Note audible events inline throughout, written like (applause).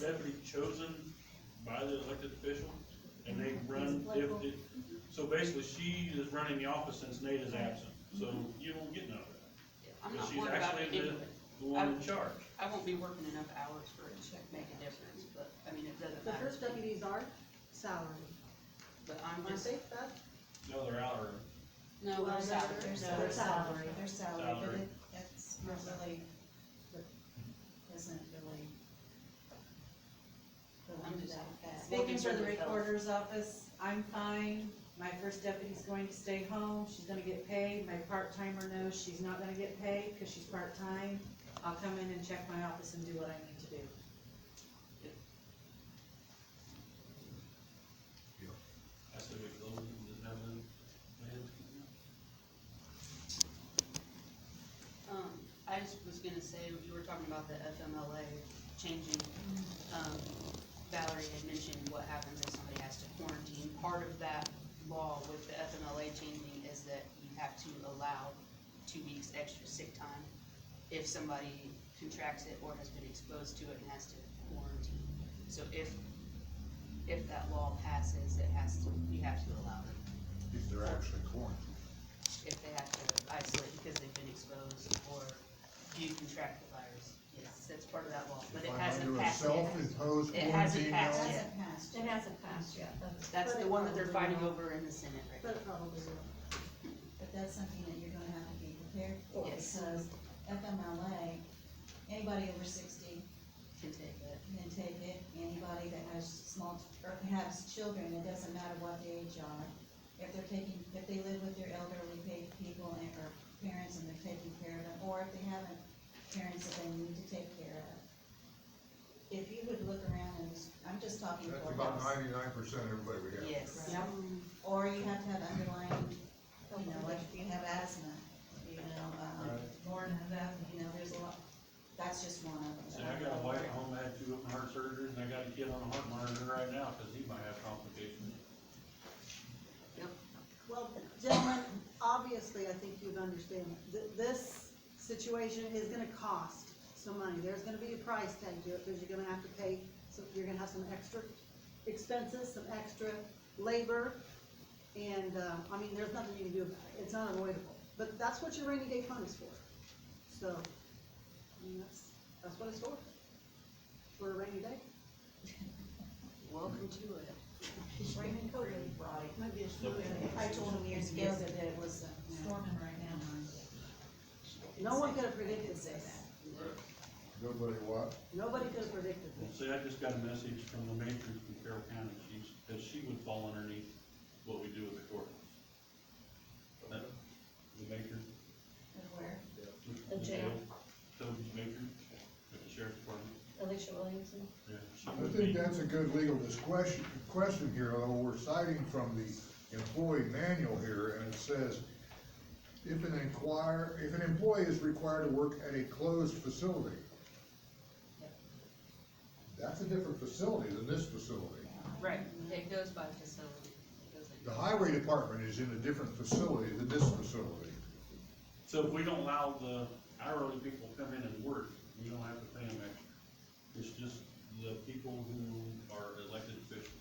deputy chosen by the elected official, and they run, if, if, so basically, she is running the office since Nate is absent, so you won't get none of that. I'm Because not she's worried about it actually the, anyway. the one in charge. I won't be working enough hours for it to make a difference, but, I mean, it doesn't The matter. first deputies are salary. But I'm Aren't just, they, Beth? The other hour, no, Well, I'm no, salary, there's- no, there's there's salary. salary. Their salary, but it, that's not really, that isn't really. I'm really just- that bad. We'll Speaking for the consider it both. recorder's office, I'm fine, my first deputy's going to stay home, she's gonna get paid, my part-timer knows she's not gonna get paid, cause she's part-time. I'll come in and check my office and do what I need to do. I said we close and just have them, my head's coming out. Um, I just was gonna say, you were talking about the FMLA changing, um, Valerie had mentioned what happens if somebody has to quarantine. Part of that law with the FMLA changing is that you have to allow two weeks extra sick time if somebody contracts it or has been exposed to it and has to quarantine. So if, if that law passes, it has to, you have to allow it If they're actually quarantined. if they have to isolate because they've been exposed or do contract the virus. Yes, that's part of that law, but If it I'm hasn't under a passed yet. Self-imposed It hasn't quarantine passed yet. now, Hasn't passed It yet. hasn't passed yet, but, That's the one that they're fighting But it over in the Senate right but it probably will. But that's something that you're gonna have to be prepared for, Yes. because FMLA, anybody over sixty now, can take it. can take it, anybody that has small, or has children, it doesn't matter what the age are. If they're taking, if they live with their elderly pa- people and, or parents and they're taking care of them, or if they haven't, parents that they need to take care of. If you would look around and, I'm just talking that's for about us, ninety-nine percent of everybody we have. Yes. Right. or you have to have underlying you know, like if you have asthma, you know, um, Right. born of asthma, you know, there's a lot, that's just one of See, them. I got a wife at home, I had two open heart surgeries, and I got a kid on a heart monitor right now, cause he might have complications. Well, gentlemen, obviously, I think you'd understand, th- this situation is gonna cost some money. There's gonna be a price tag to it, because you're gonna have to pay, so you're gonna have some extra expenses, some extra labor. And, uh, I mean, there's nothing you can do about it. It's unavoidable. But that's what your rainy day fund is for. So, I mean, that's, that's what it's for. For a rainy day. (laughs) Welcome to it. Raymond Cody brought it. Might be a Nope. I told him years ago that it was storming right now. No one could have They predicted could say this. that. Nobody what? Nobody could have predicted Well, this. see, I just got a message from the matron from Carroll County, she's, that she would fall underneath what we do with the courthouse. That- The matron. Of Where? The jail. Toby's matron, at the sheriff's department. Alicia Williamson? Yeah, she I would be- think that's a good legal discussion, question here, although we're citing from the employee manual here, and it says, if an inquire, if an employee is required to work at a closed facility, that's a different facility than this facility. Right, it goes by facility. It goes in. The highway department is in a different facility than this facility. So if we don't allow the hourly people to come in and work, we don't have to pay them extra. It's just the people who are elected officials.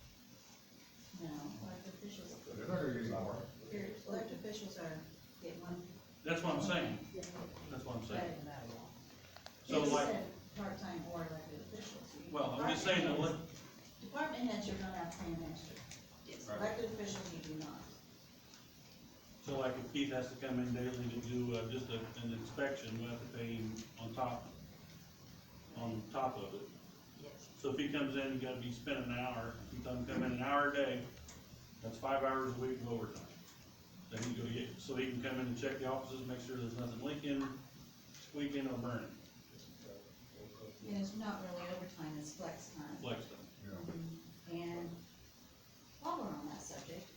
No, elected officials, They're not gonna get any more. your elected officials are getting one, That's what I'm saying, Yeah. that's what I'm better saying. than that law. So It like, said Part-time or elected officials. well, I'm just saying, the li- Department heads, you're gonna have to pay an extra. Yes. Right. Elected officials, you do not. so like if Keith has to come in daily to do, uh, just a, an inspection, we have to pay him on top, on top of it. Yes. So if he comes in, you gotta be spending an hour, if he doesn't come in an hour a day, that's five hours a week of overtime. Then he go get, so he can come in and check the offices, make sure there's nothing leaking, squeaking or burning, Yeah, it's not really overtime, it's flex time. flex time. Yeah. And while we're on that subject,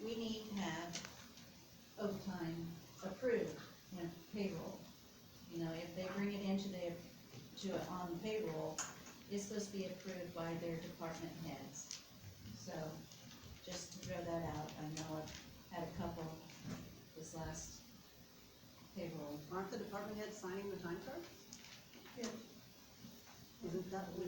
we need to have overtime approved when payroll. You know, if they bring it into their, to, on payroll, it's supposed to be approved by their department heads. So, just to throw that out, I know I've had a couple this last payroll Aren't the department heads signing the time cards? Yeah. Isn't that,